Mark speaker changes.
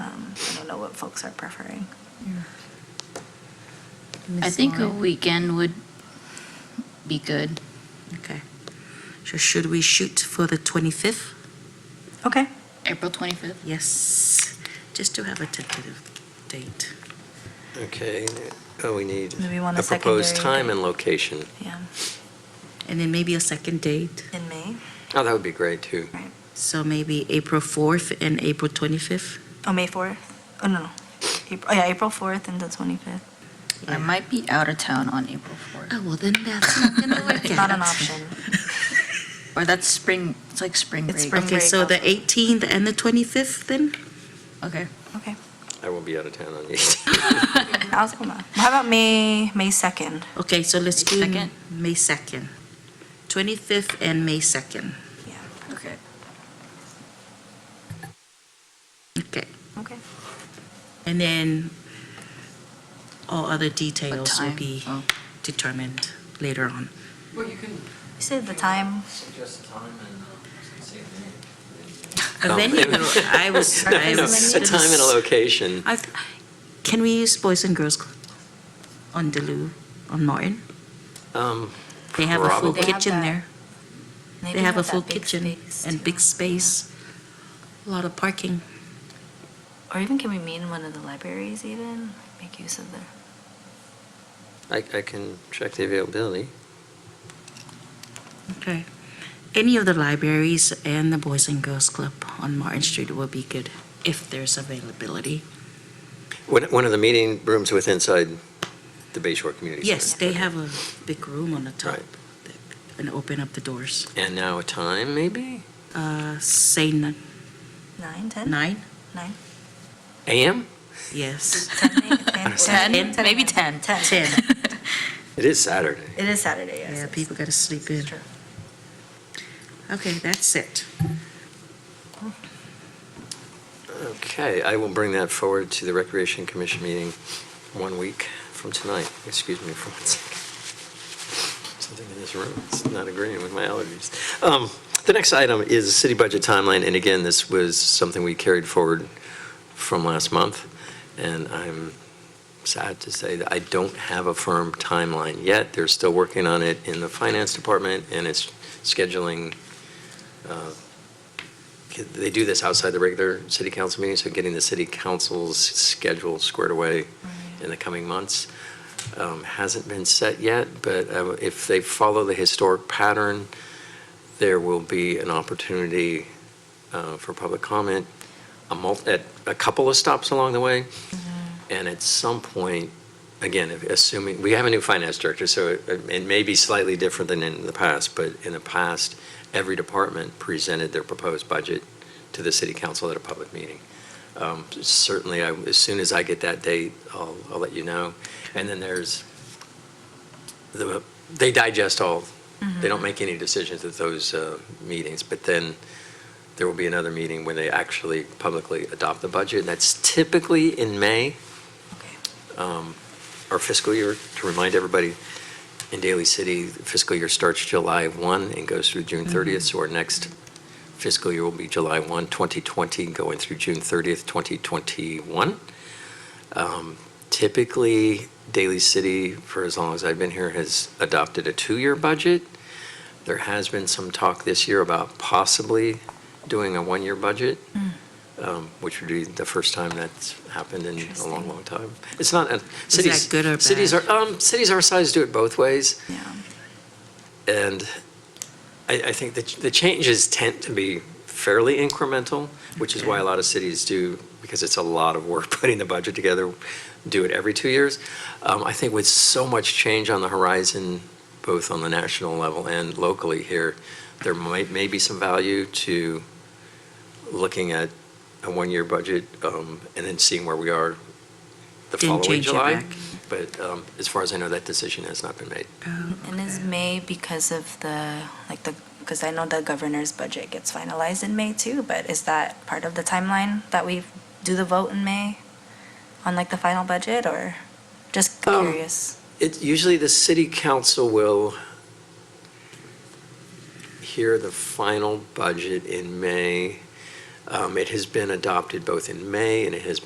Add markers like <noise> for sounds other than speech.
Speaker 1: Um, know what folks are preferring.
Speaker 2: I
Speaker 3: Miss
Speaker 2: think a
Speaker 3: Lauren?
Speaker 2: weekend would be good.
Speaker 3: Okay. So should we shoot for the 25th?
Speaker 1: Okay,
Speaker 2: April 25th.
Speaker 3: Yes, just to have a tentative date.
Speaker 4: Okay, oh, we need
Speaker 1: Maybe we want
Speaker 4: a
Speaker 1: a
Speaker 4: proposed
Speaker 1: secondary
Speaker 4: time and location.
Speaker 1: yeah,
Speaker 3: And then maybe a second date.
Speaker 1: in May.
Speaker 4: Oh, that would be great, too.
Speaker 3: So maybe April 4th and April 25th?
Speaker 1: Oh, May 4th? Oh, no, no. April, oh, yeah, April 4th and the 25th.
Speaker 2: I might be out of town on April 4th.
Speaker 3: Oh, well, then <laughs> that's not going to work out.
Speaker 1: Not an <laughs> option.
Speaker 2: Or that's spring, it's like spring
Speaker 1: It's spring.
Speaker 2: break.
Speaker 3: Okay, so the
Speaker 1: break.
Speaker 3: 18th and the 25th then?
Speaker 2: Okay.
Speaker 1: Okay,
Speaker 4: I will be out of town on the 18th.
Speaker 1: I'll come back. How about May, May 2nd?
Speaker 3: Okay, so let's
Speaker 2: May
Speaker 3: do
Speaker 2: 2nd?
Speaker 3: May 2nd. 25th and May 2nd.
Speaker 1: Yeah,
Speaker 2: Okay.
Speaker 3: Okay.
Speaker 1: okay.
Speaker 3: And then all other details will
Speaker 2: time?
Speaker 3: be
Speaker 2: Oh.
Speaker 3: determined later on.
Speaker 5: <laughs> Well, you can
Speaker 1: You said the time,
Speaker 5: suggest a time and uh, say the name.
Speaker 3: A
Speaker 4: Um,
Speaker 3: venue, I
Speaker 4: <laughs>
Speaker 3: was,
Speaker 4: No,
Speaker 3: Oh, <laughs> I
Speaker 4: no,
Speaker 3: was.
Speaker 4: A time and a location.
Speaker 3: I th- Can we use Boys and Girls Club on Delu, on Martin?
Speaker 4: Um,
Speaker 3: They have a full
Speaker 4: Probably.
Speaker 1: They have
Speaker 3: kitchen
Speaker 1: that.
Speaker 3: there.
Speaker 1: they
Speaker 3: They
Speaker 1: do
Speaker 3: have a
Speaker 1: that
Speaker 3: full
Speaker 1: big
Speaker 3: kitchen
Speaker 1: space,
Speaker 3: and
Speaker 1: too.
Speaker 3: big space, a lot of parking.
Speaker 1: Or even can we meet in one of the libraries even? Make use of the,
Speaker 4: I, I can check the availability.
Speaker 3: Okay. Any of the libraries and the Boys and Girls Club on Martin Street will be good if there's availability.
Speaker 4: One, one of the meeting rooms with inside the Bay Shore Community Center.
Speaker 3: Yes, they have a big room on the top
Speaker 4: Right.
Speaker 3: that- and open up the doors.
Speaker 4: And now a time, maybe?
Speaker 3: Uh, Say n-
Speaker 1: nine, 10?
Speaker 3: nine?
Speaker 1: Nine?
Speaker 4: AM?
Speaker 3: Yes. <laughs>
Speaker 1: 10?
Speaker 3: 10?
Speaker 2: Maybe 10.
Speaker 1: 10.
Speaker 3: Ten.
Speaker 2: Oh.
Speaker 4: It is Saturday.
Speaker 1: It is Saturday, yes.
Speaker 3: Yeah,
Speaker 1: it's-
Speaker 3: people gotta sleep in.
Speaker 1: it's true.
Speaker 3: Okay, that's it.
Speaker 4: Okay, I will bring that forward to the Recreation Commission meeting one week from tonight. Excuse me for one second. Something in this room is not agreeing with my allergies. Um, The next item is the city budget timeline, and again, this was something we carried forward from last month, and I'm sad to say that I don't have a firm timeline yet. They're still working on it in the finance department, and it's scheduling uh, they do this outside the regular city council meeting, so getting the city council's schedule squared away in the coming months um, hasn't been set yet, but uh, if they follow the historic pattern, there will be an opportunity uh, for public comment, a mul, at a couple of stops along the way, and at some point, again, if- assuming, we have a new finance director, so it- it may be slightly different than in the past, but in the past, every department presented their proposed budget to the city council at a public meeting. Um, Certainly, I- as soon as I get that date, I'll, I'll let you know. And then there's, the they digest all, they don't make any decisions at those uh, meetings, but then there will be another meeting when they actually publicly adopt the budget, and that's typically in May.
Speaker 1: Okay.
Speaker 4: Um, Our fiscal year, to remind everybody, in Daly City, fiscal year starts July 1 and goes through June 30th, so our next fiscal year will be July 1, 2020, going through June 30th, 2021. Um, Typically, Daly City, for as long as I've been here, has adopted a two-year budget. There has been some talk this year about possibly doing a one-year budget, um, which would be the first time that's happened in a long,
Speaker 1: Interesting.
Speaker 4: long time. It's not, a-
Speaker 3: that
Speaker 4: cities.
Speaker 3: good or
Speaker 4: Cities
Speaker 3: bad?
Speaker 4: are, um, cities our size do it both ways.
Speaker 1: Yeah.
Speaker 4: And I, I think the, the changes tend to be fairly incremental, which is why a lot of cities do, because it's a lot of work <laughs> putting the budget together, do it every two years. Um, I think with so much change on the horizon, both on the national level and locally here, there might, may be some value to looking at a one-year budget, um, and then seeing where we are the
Speaker 3: Didn't
Speaker 4: following
Speaker 3: change it
Speaker 4: July.
Speaker 3: back.
Speaker 4: But, um, as far as I know, that decision has not been made.
Speaker 1: And is May because of the, like the, because I know the governor's budget gets finalized in May too, but is that part of the timeline that we do the vote in May on like the final budget or just
Speaker 4: Um,
Speaker 1: curious?
Speaker 4: It, usually the city council will hear the final budget in May. Um, It has been adopted both in May and it has